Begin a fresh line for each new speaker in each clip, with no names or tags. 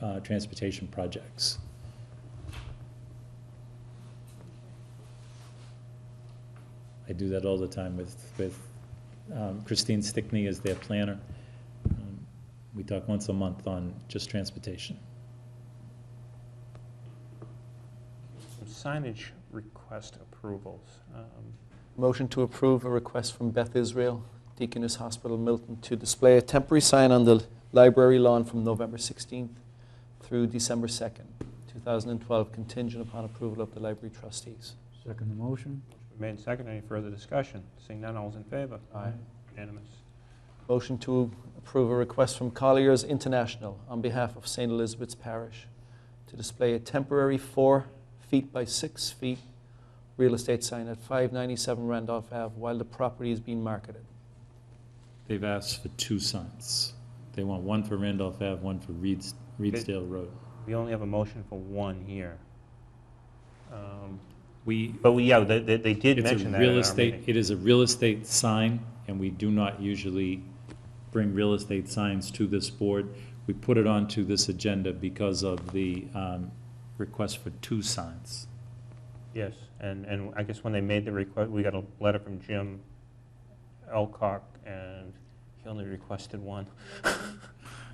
uh, transportation projects. I do that all the time with, with um, Christine Stickney as their planner. Um, We talk once a month on just transportation.
Signage request approvals. Um,
Motion to approve a request from Beth Israel, Deaconess Hospital, Milton, to display a temporary sign on the library lawn from November 16th through December 2nd, 2012, contingent upon approval of the library trustees.
Second the motion.
Motion Made and seconded. Any further discussion? Seeing none, all's in favor?
Aye.
Unanimous.
Motion to approve a request from Colliers International on behalf of St. Elizabeth's Parish to display a temporary four feet by six feet real estate sign at 597 Randolph Ave while the property is being marketed.
They've asked for two signs. They want one for Randolph Ave, one for Reeds, Reedsdale Road.
We only have a motion for one here. Um,
We,
But we, yeah, they, they they did
it's a
mention that uh, at
real
our
estate,
meeting.
it is a real estate sign, and we do not usually bring real estate signs to this board. We put it onto this agenda because of the um, request for two signs.
Yes, and, and I guess when they made the request, we got a letter from Jim Elcock, and he only requested one.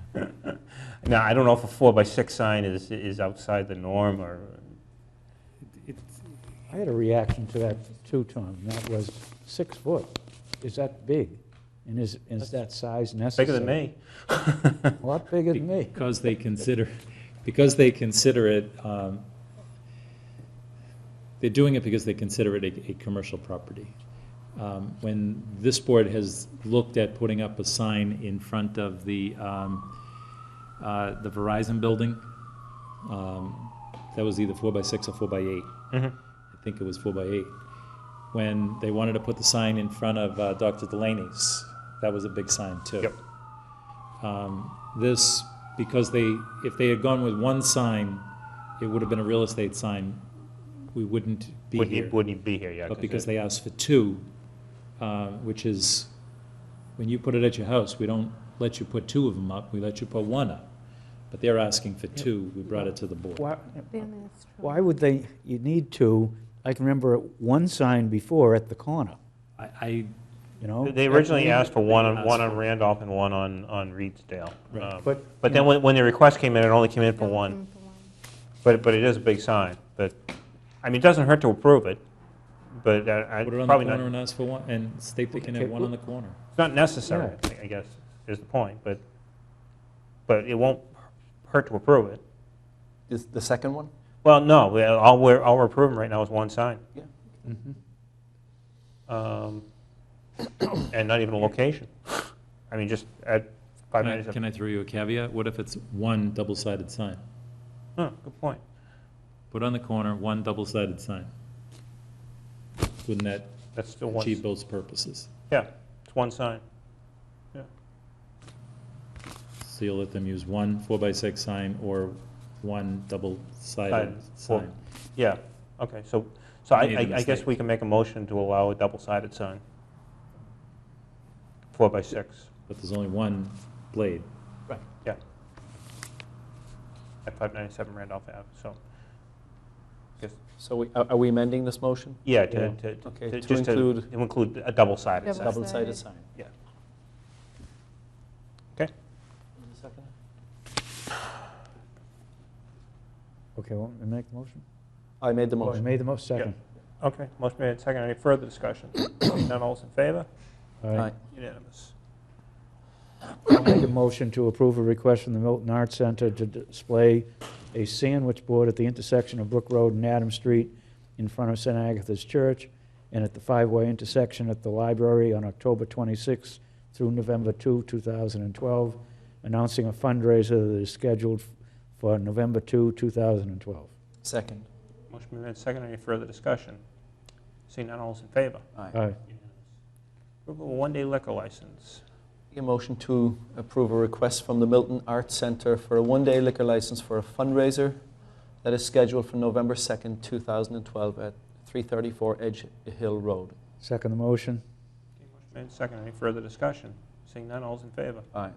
Now, I don't know if a four by six sign is, is outside the norm, or,
I had a reaction to that too, Tom. That was six foot. Is that big? And is, is that size necessary?
bigger than me.
A lot bigger than me.
Because they consider, because they consider it, um, they're doing it because they consider it a, a commercial property. Um, When this board has looked at putting up a sign in front of the, um, uh, the Verizon building, um, that was either four by six or four by eight.
Mhm.
I think it was four by eight. When they wanted to put the sign in front of uh, Dr. Delaney's, that was a big sign too.
Yep.
Um, This, because they, if they had gone with one sign, it would have been a real estate sign, we wouldn't be
Wouldn't he-
here.
Wouldn't he be here, yeah.
But because
it-
they asked for two, uh, which is, when you put it at your house, we don't let you put two of them up, we let you put one up. But they're asking for two, we brought it to the board.
Why,
Bare minutes from-
why would they, you need to, I can remember one sign before at the corner,
I, I,
you know?
They originally
That's-
asked for one on,
asked
one on
for-
Randolph and one on, on Reedsdale.
Right.
Um,
But,
But
you
then
know-
when, when the request came in, it only came in for
Bare
one.
minutes from one.
But, but it is a big sign, but, I mean, it doesn't hurt to approve it, but uh, I,
put it on the
probably
corner
not,
and ask for one, and state they can have
Okay,
one on
well-
the corner.
it's not necessary,
Yeah.
I guess, is the point, but, but it won't hurt to approve it.
The the second one?
Well, no, we- all we're, all we're approving right now is one sign.
Yeah.
Mm-hmm.
Um, And not even a location. I mean, just at five
Can I-
minutes of,
Can I throw you a caveat? What if it's one double-sided sign?
huh, good point.
Put on the corner, one double-sided sign. Wouldn't that
That's still one,
achieve both purposes?
yeah, it's one sign.
So you'll let them use one four-by-six sign or one double-sided
Sided, four-
sign?
Yeah, okay, so, so I,
Made a
I- I guess
mistake.
we can make a motion to allow a double-sided sign. Four by six,
But there's only one blade.
yeah. At 597 Randolph Ave, so,
So we- are are we amending this motion?
yeah, to,
Yeah.
to-
Okay,
to,
to
just to,
include-
to include a double-sided sign.
Double-
Double-sided
Double-sided.
sign.
Yeah. Okay.
Okay.
Okay, well, make the motion.
I made the
Oh, you
motion.
made the motion, second.
Okay, motion made, and seconded, any further discussion? Seeing None, all's in favor?
All right.
Unanimous.
I'll make a motion to approve a request from the Milton Arts Center to display a sandwich board at the intersection of Brook Road and Adam Street in front of St. Agatha's Church and at the five-way intersection at the library on October 26th through November 2, 2012, announcing a fundraiser that is scheduled for November 2, 2012.
Second.
Motion made, and seconded, any further discussion? Seeing none, all's in favor?
Aye.
Aye.
Approval of one-day liquor license.
A motion to approve a request from the Milton Arts Center for a one-day liquor license for a fundraiser that is scheduled for November 2nd, 2012 at 334 Edge Hill Road.
Second the motion?
Okay, Motion made, and seconded, any further discussion? Seeing none, all's in favor?
Aye.